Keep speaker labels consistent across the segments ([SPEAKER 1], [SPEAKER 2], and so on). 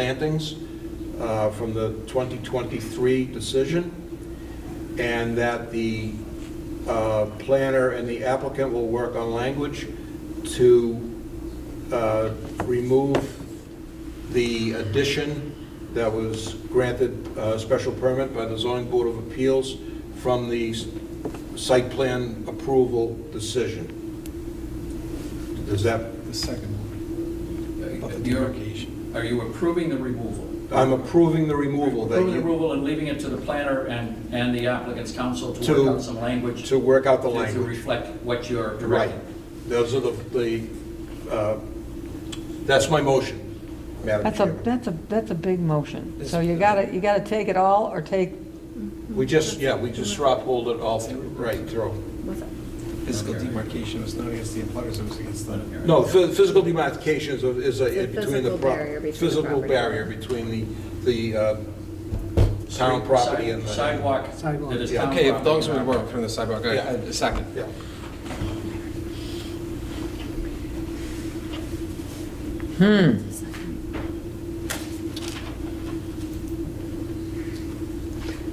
[SPEAKER 1] plantings uh, from the 2023 decision, and that the uh, planner and the applicant will work on language to uh, remove the addition that was granted uh, special permit by the zoning board of appeals from the s- site plan approval decision. Does that,
[SPEAKER 2] The second one.
[SPEAKER 3] Uh,
[SPEAKER 2] Of the
[SPEAKER 3] you're-
[SPEAKER 2] demarcation.
[SPEAKER 3] Are you approving the removal?
[SPEAKER 1] I'm approving the removal that
[SPEAKER 3] Approving the
[SPEAKER 1] you,
[SPEAKER 3] removal and leaving it to the planner and, and the applicant's counsel to
[SPEAKER 1] To-
[SPEAKER 3] work out some language
[SPEAKER 1] to work out the
[SPEAKER 3] to- to
[SPEAKER 1] language.
[SPEAKER 3] reflect what you're
[SPEAKER 1] Right.
[SPEAKER 3] directing.
[SPEAKER 1] Those are the, the, uh, that's my motion, Madam
[SPEAKER 4] That's a,
[SPEAKER 1] Chairman.
[SPEAKER 4] that's a, that's a big motion. So you gotta, you gotta take it all or take,
[SPEAKER 1] We just, yeah, we just straw pulled it all through, right through.
[SPEAKER 2] Physical demarcation was not against the abutters, it was against the.
[SPEAKER 1] No, phy- physical demarcation is a- is a,
[SPEAKER 5] It's a
[SPEAKER 1] between the.
[SPEAKER 5] physical
[SPEAKER 1] pro-
[SPEAKER 5] barrier between the
[SPEAKER 1] Physical
[SPEAKER 5] property.
[SPEAKER 1] barrier between the, the uh, town
[SPEAKER 3] Street-
[SPEAKER 1] property
[SPEAKER 3] side-
[SPEAKER 1] and the.
[SPEAKER 3] Sidewalk.
[SPEAKER 2] Sidewalk.
[SPEAKER 3] that is town
[SPEAKER 6] Okay, if
[SPEAKER 3] property,
[SPEAKER 6] those would
[SPEAKER 3] not-
[SPEAKER 6] work from the sidewalk, I- I- a second.
[SPEAKER 1] Yeah.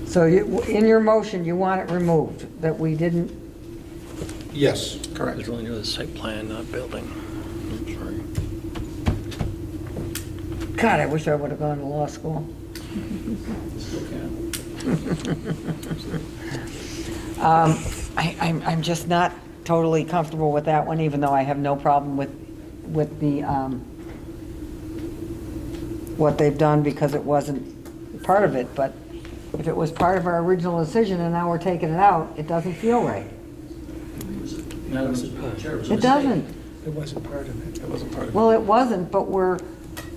[SPEAKER 4] so you, in your motion, you want it removed, that we didn't,
[SPEAKER 1] Yes,
[SPEAKER 6] Correct.
[SPEAKER 7] There's only the site plan, not building. I'm sorry.
[SPEAKER 4] God, I wish I would've gone to law school.
[SPEAKER 3] Still can.
[SPEAKER 4] Um, I, I'm, I'm just not totally comfortable with that one, even though I have no problem with, with the, um, what they've done because it wasn't part of it, but if it was part of our original decision and now we're taking it out, it doesn't feel right.
[SPEAKER 3] It was a- Madam Chair, was a
[SPEAKER 4] It
[SPEAKER 3] mistake.
[SPEAKER 4] doesn't.
[SPEAKER 2] It wasn't part of it. It wasn't part of it.
[SPEAKER 4] Well, it wasn't, but we're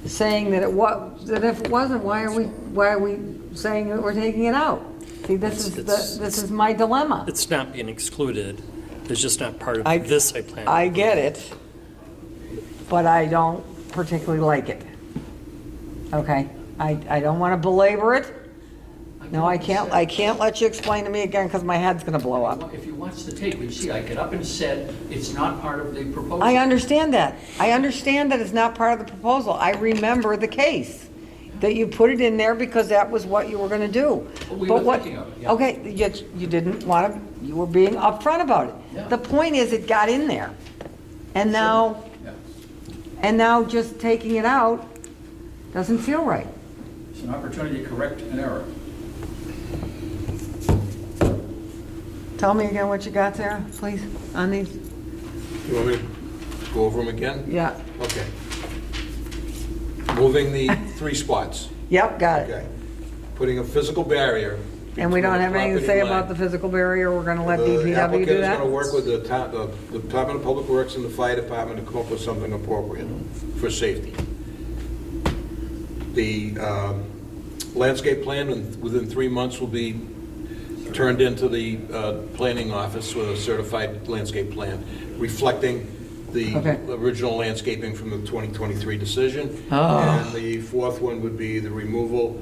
[SPEAKER 4] saying that it wa, that if it wasn't, why are we, why are we saying that we're taking it out? See, this is, the
[SPEAKER 7] It's-
[SPEAKER 4] this is my dilemma.
[SPEAKER 7] It's not being excluded, it's just not part
[SPEAKER 4] I-
[SPEAKER 7] of this site plan.
[SPEAKER 4] I get it, but I don't particularly like it. Okay, I, I don't want to belabor it. No, I can't, I can't let you explain to me again because my head's going to blow up.
[SPEAKER 3] If you watch the tape, you see I get up and said, it's not part of the proposal.
[SPEAKER 4] I understand that. I understand that it's not part of the proposal. I remember the case, that you put it in there because that was what you were gonna do.
[SPEAKER 3] But Oh, we
[SPEAKER 4] But
[SPEAKER 3] were
[SPEAKER 4] what-
[SPEAKER 3] thinking of it, yeah.
[SPEAKER 4] Okay, yet you didn't wanna, you were being upfront about
[SPEAKER 3] Yeah.
[SPEAKER 4] it. The point is, it got in there. And now,
[SPEAKER 3] Yeah.
[SPEAKER 4] and now just taking it out doesn't feel right.
[SPEAKER 3] It's an opportunity to correct an error.
[SPEAKER 4] Tell me again what you got there, please, on these,
[SPEAKER 1] you want me to go over them again?
[SPEAKER 4] yeah.
[SPEAKER 1] Okay. Moving the three spots,
[SPEAKER 4] Yep, got it.
[SPEAKER 1] okay. Putting a physical barrier.
[SPEAKER 4] And we
[SPEAKER 1] between
[SPEAKER 4] don't
[SPEAKER 1] the
[SPEAKER 4] have anything to say
[SPEAKER 1] property
[SPEAKER 4] about the
[SPEAKER 1] line.
[SPEAKER 4] physical barrier, we're gonna let
[SPEAKER 1] The
[SPEAKER 4] DPW
[SPEAKER 1] applicant
[SPEAKER 4] do
[SPEAKER 1] is
[SPEAKER 4] that?
[SPEAKER 1] gonna work with the town, the Department of Public Works and the Fire Department to come up with something appropriate for safety. The um, landscape plan in- within three months will be turned into the uh, planning office with a certified landscape plan reflecting the
[SPEAKER 4] Okay.
[SPEAKER 1] original landscaping from the 2023 decision.
[SPEAKER 4] Oh.
[SPEAKER 1] And the fourth one would be the removal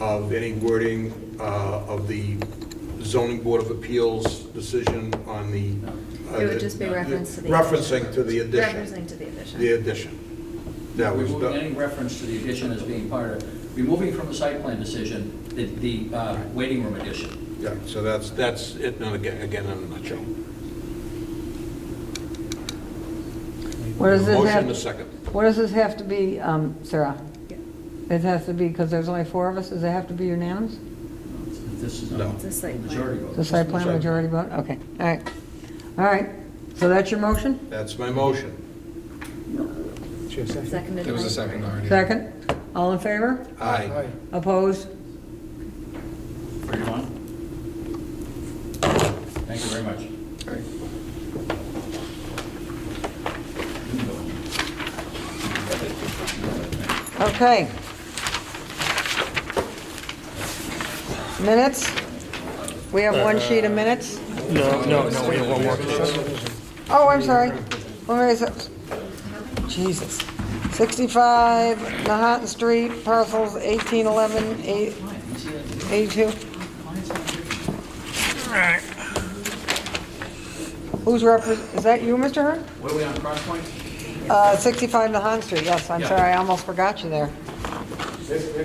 [SPEAKER 1] of any wording uh, of the zoning board of appeals decision on the. uh,
[SPEAKER 5] It would just be reference to the-
[SPEAKER 1] Referencing to the addition,
[SPEAKER 5] Referencing to the
[SPEAKER 1] the
[SPEAKER 5] addition.
[SPEAKER 1] addition. That was,
[SPEAKER 3] Removing any
[SPEAKER 1] the-
[SPEAKER 3] reference to the addition as being part of, removing from the site plan decision, the, the uh, waiting room addition.
[SPEAKER 1] yeah, so that's, that's it, and again, again, in a nutshell.
[SPEAKER 4] What does this have?
[SPEAKER 1] Motion to second.
[SPEAKER 4] What does this have to be, um, Sarah?
[SPEAKER 5] Yeah.
[SPEAKER 4] It has to be, because there's only four of us, does it have to be unanimous?
[SPEAKER 3] This is
[SPEAKER 1] No.
[SPEAKER 3] not
[SPEAKER 5] It's a site plan.
[SPEAKER 3] majority vote.
[SPEAKER 4] The site plan
[SPEAKER 1] Site plan.
[SPEAKER 4] majority vote? Okay, all right. All right, so that's your motion?
[SPEAKER 1] That's my motion.
[SPEAKER 2] Sure, second.
[SPEAKER 5] Seconded
[SPEAKER 6] There was
[SPEAKER 5] by-
[SPEAKER 6] a second already.
[SPEAKER 4] Second? All in favor?
[SPEAKER 1] Aye.
[SPEAKER 4] Opposed?
[SPEAKER 3] Thirty-one? Thank you very much.
[SPEAKER 6] All right.
[SPEAKER 4] Okay. Minutes? We have one sheet of minutes?
[SPEAKER 7] Uh, No, no, no, we have one more.
[SPEAKER 4] Oh, I'm sorry. Where is it? Jesus. 65 Nahat Street, parcels 1811, 8 82. Who's repres, is that you, Mr. Hearn?
[SPEAKER 3] What are we on, Cross Point?
[SPEAKER 4] Uh, 65 Nahan Street, yes, I'm
[SPEAKER 3] Yeah.
[SPEAKER 4] sorry, I almost forgot you there.
[SPEAKER 8] If,